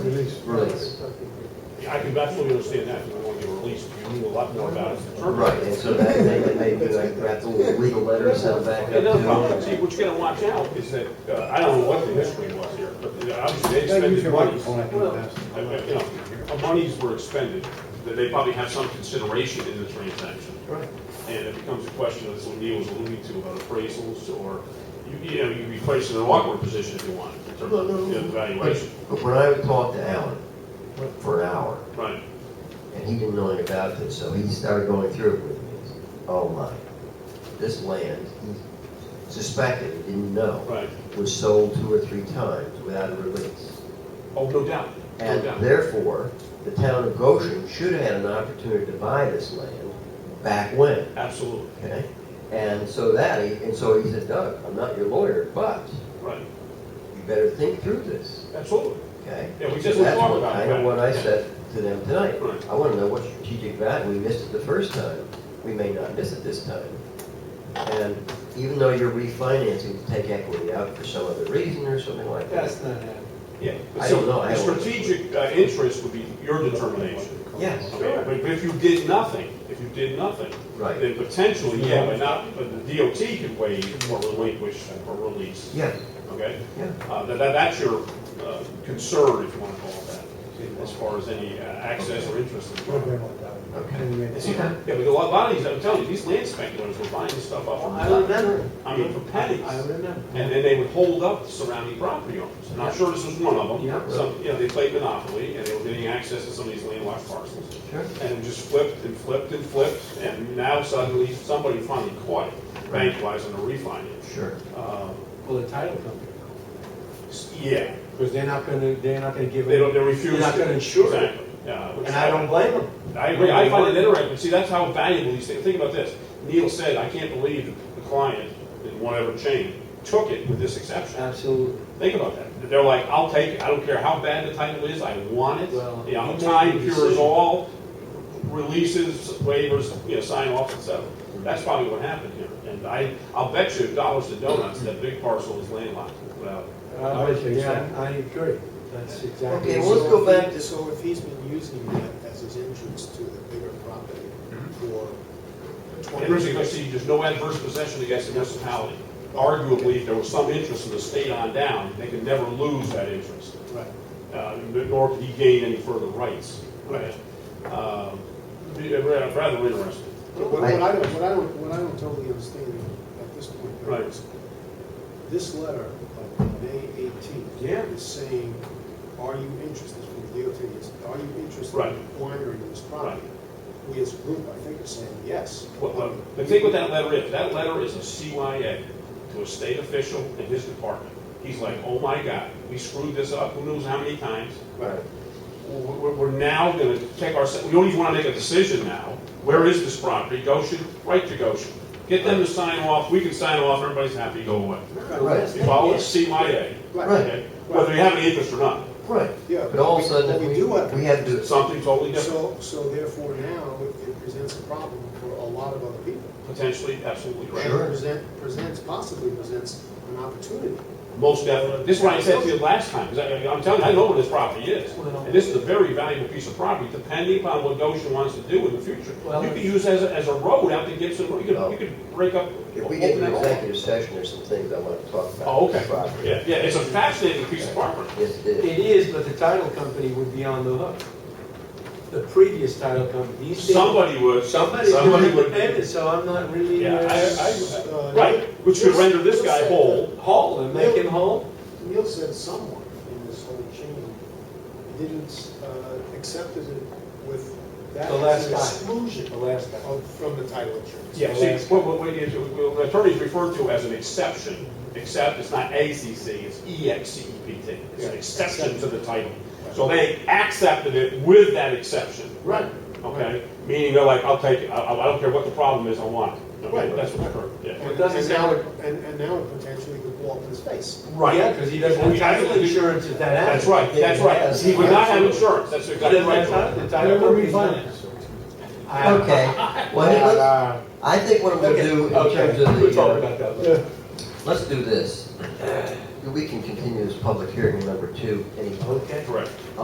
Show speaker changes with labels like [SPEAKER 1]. [SPEAKER 1] I can absolutely understand that, you want to get released, you knew a lot more about it. than-
[SPEAKER 2] Right, and so that, they, they do, like, wrap the little legal letter, send it back up.
[SPEAKER 1] Another
[SPEAKER 2] to-
[SPEAKER 1] problem, see, what you gotta watch out is that, uh, I don't know what the history was here, but uh, obviously they
[SPEAKER 3] They use
[SPEAKER 1] expended
[SPEAKER 3] your
[SPEAKER 1] money.
[SPEAKER 3] microphone, I think, best.
[SPEAKER 1] I- I- You know, monies were expended, that they probably have some consideration in the transaction.
[SPEAKER 2] Right.
[SPEAKER 1] And it becomes a question of, as Neil was alluding to, about appraisals, or, you- you know, you could be placed in an awkward position if you want, in terms
[SPEAKER 2] No, no,
[SPEAKER 1] of you know,
[SPEAKER 2] But
[SPEAKER 1] valuation.
[SPEAKER 2] but when I talked to Alan for an hour,
[SPEAKER 1] Right,
[SPEAKER 2] and he didn't know anything about this, so he started going through it with me. Oh my, this land, he suspected, he didn't know,
[SPEAKER 1] right.
[SPEAKER 2] was sold two or three times without a release.
[SPEAKER 1] Oh, no doubt, no
[SPEAKER 2] And
[SPEAKER 1] doubt.
[SPEAKER 2] therefore, the town of Goshen should have had an opportunity to buy this land back when,
[SPEAKER 1] Absolutely,
[SPEAKER 2] okay? And so that, he- and so he said, Doug, I'm not your lawyer, but
[SPEAKER 1] right,
[SPEAKER 2] you better think through this,
[SPEAKER 1] absolutely.
[SPEAKER 2] okay?
[SPEAKER 1] Yeah, we just
[SPEAKER 2] So that's
[SPEAKER 1] talked
[SPEAKER 2] what-
[SPEAKER 1] about
[SPEAKER 2] I
[SPEAKER 1] that.
[SPEAKER 2] know what I said to them tonight.
[SPEAKER 1] Right.
[SPEAKER 2] I want to know what strategic value, we missed it the first time, we may not miss it this time. And even though you're refinancing to take equity out for some other reason or something like that.
[SPEAKER 3] That's not happening.
[SPEAKER 1] Yeah.
[SPEAKER 2] I don't know.
[SPEAKER 1] The strategic uh, interest would be your determination.
[SPEAKER 2] Yes,
[SPEAKER 1] Okay, But if you did nothing, if you did nothing,
[SPEAKER 2] Right.
[SPEAKER 1] then potentially, yeah, but not, but the DOT could waive or relinquish or release,
[SPEAKER 2] Yeah,
[SPEAKER 1] okay?
[SPEAKER 2] yeah.
[SPEAKER 1] Uh, that, that- that's your uh, concern, if you want to call it that, as far as any uh, access or interest. in the
[SPEAKER 3] Would have
[SPEAKER 1] property.
[SPEAKER 3] been like that.
[SPEAKER 2] Okay.
[SPEAKER 3] And we
[SPEAKER 1] And
[SPEAKER 3] made-
[SPEAKER 1] see, Yeah, but a lot- lot of these, I'm telling you, these land speculators were buying this stuff up. on
[SPEAKER 2] I remember.
[SPEAKER 1] I mean, for pennies.
[SPEAKER 2] I remember.
[SPEAKER 1] And then they would hold up surrounding property owners. And I'm sure this was one of them.
[SPEAKER 2] Yeah.
[SPEAKER 1] Some, you know, they played Monopoly and they were getting access to some of these landlocked parcels.
[SPEAKER 2] Sure.
[SPEAKER 1] And it just flipped and flipped and flipped, and now suddenly somebody finally caught it,
[SPEAKER 2] Right.
[SPEAKER 1] bank-wise on a refinance.
[SPEAKER 2] Sure.
[SPEAKER 1] Um,
[SPEAKER 3] Well, the title company,
[SPEAKER 1] s- Yeah,
[SPEAKER 3] because they're not gonna, they're not gonna give
[SPEAKER 1] they don't,
[SPEAKER 3] it,
[SPEAKER 1] they refuse.
[SPEAKER 3] You're not
[SPEAKER 1] to-
[SPEAKER 3] gonna insure it.
[SPEAKER 1] Exactly. Yeah, which-
[SPEAKER 3] and I don't blame them.
[SPEAKER 1] I agree, I find it interesting, but see, that's how valuable these things, think about this. Neil said, I can't believe the client in whatever chain took it with this exception.
[SPEAKER 3] Absolutely.
[SPEAKER 1] Think about that. They're like, I'll take it, I don't care how bad the title is, I want it.
[SPEAKER 3] Well,
[SPEAKER 1] You know,
[SPEAKER 3] you
[SPEAKER 1] time
[SPEAKER 3] made the
[SPEAKER 1] cures
[SPEAKER 3] decision.
[SPEAKER 1] all, releases, waivers, you know, sign offs, et cetera. That's probably what happened here. And I, I'll bet you dollars to donuts, that big parcel is landlocked without.
[SPEAKER 3] I would think so. I agree. That's exactly.
[SPEAKER 2] Okay, well, let's go back to-
[SPEAKER 4] So if he's been using that as his entrance to the bigger property for twenty
[SPEAKER 1] And
[SPEAKER 4] years.
[SPEAKER 1] Richie, see, there's no adverse possession against the municipality. Arguably, if there was some interest in the state on down, they could never lose that interest.
[SPEAKER 4] Right.
[SPEAKER 1] uh, nor could he gain any further rights. Right. Um, be- uh, ra- Rather interesting.
[SPEAKER 4] But what what I don't, what I don't, what I don't totally understand at this point
[SPEAKER 1] Right.
[SPEAKER 4] is, this letter of May eighteenth
[SPEAKER 3] Yeah.
[SPEAKER 4] is saying, are you interested, from the DOT, it's, are you interested
[SPEAKER 1] Right.
[SPEAKER 4] in acquiring this property? We as a group, I think, are saying yes.
[SPEAKER 1] What- what- But think what that letter is. That letter is a CYA to a state official in his department. He's like, oh my God, we screwed this up, who knows how many times?
[SPEAKER 2] Right.
[SPEAKER 1] We're, we're- we're now gonna take our, we don't even wanna make a decision now. Where is this property? Goshen, right to Goshen. Get them to sign off, we can sign off, everybody's happy, go away.
[SPEAKER 2] Right.
[SPEAKER 1] You follow it, CYA,
[SPEAKER 4] Right.
[SPEAKER 1] okay? whether you have any interest or not,
[SPEAKER 2] Right.
[SPEAKER 4] Yeah.
[SPEAKER 2] But all of a
[SPEAKER 4] What
[SPEAKER 2] sudden,
[SPEAKER 4] we
[SPEAKER 2] we,
[SPEAKER 4] do have-
[SPEAKER 2] we have to,
[SPEAKER 1] something totally different.
[SPEAKER 4] So, so therefore now, it it presents a problem for a lot of other people.
[SPEAKER 1] Potentially, absolutely right.
[SPEAKER 4] And
[SPEAKER 2] Sure.
[SPEAKER 4] present, presents, possibly presents an opportunity.
[SPEAKER 1] Most definitely. This is what I said to you last time, 'cause I, I'm telling you, I know what this property is. And this is a very valuable piece of property, depending upon what Goshen wants to do in the future.
[SPEAKER 3] Well,
[SPEAKER 1] You could use as, a- as a road out to Gibson, Road. you could, you could break up.
[SPEAKER 2] if we get to
[SPEAKER 1] open that
[SPEAKER 2] an
[SPEAKER 1] up.
[SPEAKER 2] executive session, there's some things I want to talk about.
[SPEAKER 1] Oh, okay.
[SPEAKER 2] This property.
[SPEAKER 1] Yeah, yeah, it's a fascinating piece of property.
[SPEAKER 2] Yes, it is.
[SPEAKER 3] It is, but the title company would be on the hook. The previous title company. these days-
[SPEAKER 1] Somebody would.
[SPEAKER 3] Somebody's gonna have to pay it, so I'm not really.
[SPEAKER 1] Yeah,
[SPEAKER 3] uh,
[SPEAKER 1] I, I, right, which could render this guy whole.
[SPEAKER 3] Whole, and make him whole.
[SPEAKER 4] Neil said someone in this whole chain didn't, uh, accept it with that
[SPEAKER 3] The last
[SPEAKER 4] as an
[SPEAKER 3] guy.
[SPEAKER 4] exclusion
[SPEAKER 3] The last guy.
[SPEAKER 4] of, from the title insurance.
[SPEAKER 1] Yeah, see, what, what, what is- what the attorneys refer to as an exception, except it's not ACC, it's E EXCEPT. It's an exception to the title. So they accepted it with that exception,
[SPEAKER 4] Right.
[SPEAKER 1] okay? Meaning they're like, I'll take it, I, I don't care what the problem is, I want it. Okay,
[SPEAKER 4] Right.
[SPEAKER 1] that's what occurred, yeah.
[SPEAKER 4] And,
[SPEAKER 3] doesn't
[SPEAKER 4] and now,
[SPEAKER 3] sound-
[SPEAKER 4] it- and, and now it potentially could blow up in his face.
[SPEAKER 3] Yeah, because he doesn't have title insurance if that happens.
[SPEAKER 1] That's right, that's right. He would not have insurance, that's
[SPEAKER 3] He
[SPEAKER 1] exactly
[SPEAKER 3] doesn't have
[SPEAKER 1] right.
[SPEAKER 3] title, the title company's not. I-
[SPEAKER 2] Okay, well, hey, let's-
[SPEAKER 3] Uh,
[SPEAKER 2] I think what we'll
[SPEAKER 3] okay,
[SPEAKER 2] do in
[SPEAKER 3] okay,
[SPEAKER 2] terms of
[SPEAKER 3] We'll
[SPEAKER 2] the,
[SPEAKER 3] talk
[SPEAKER 2] uh,
[SPEAKER 3] about that later.
[SPEAKER 2] let's do this. We can continue this public hearing number two. Any
[SPEAKER 3] Okay.
[SPEAKER 1] Correct.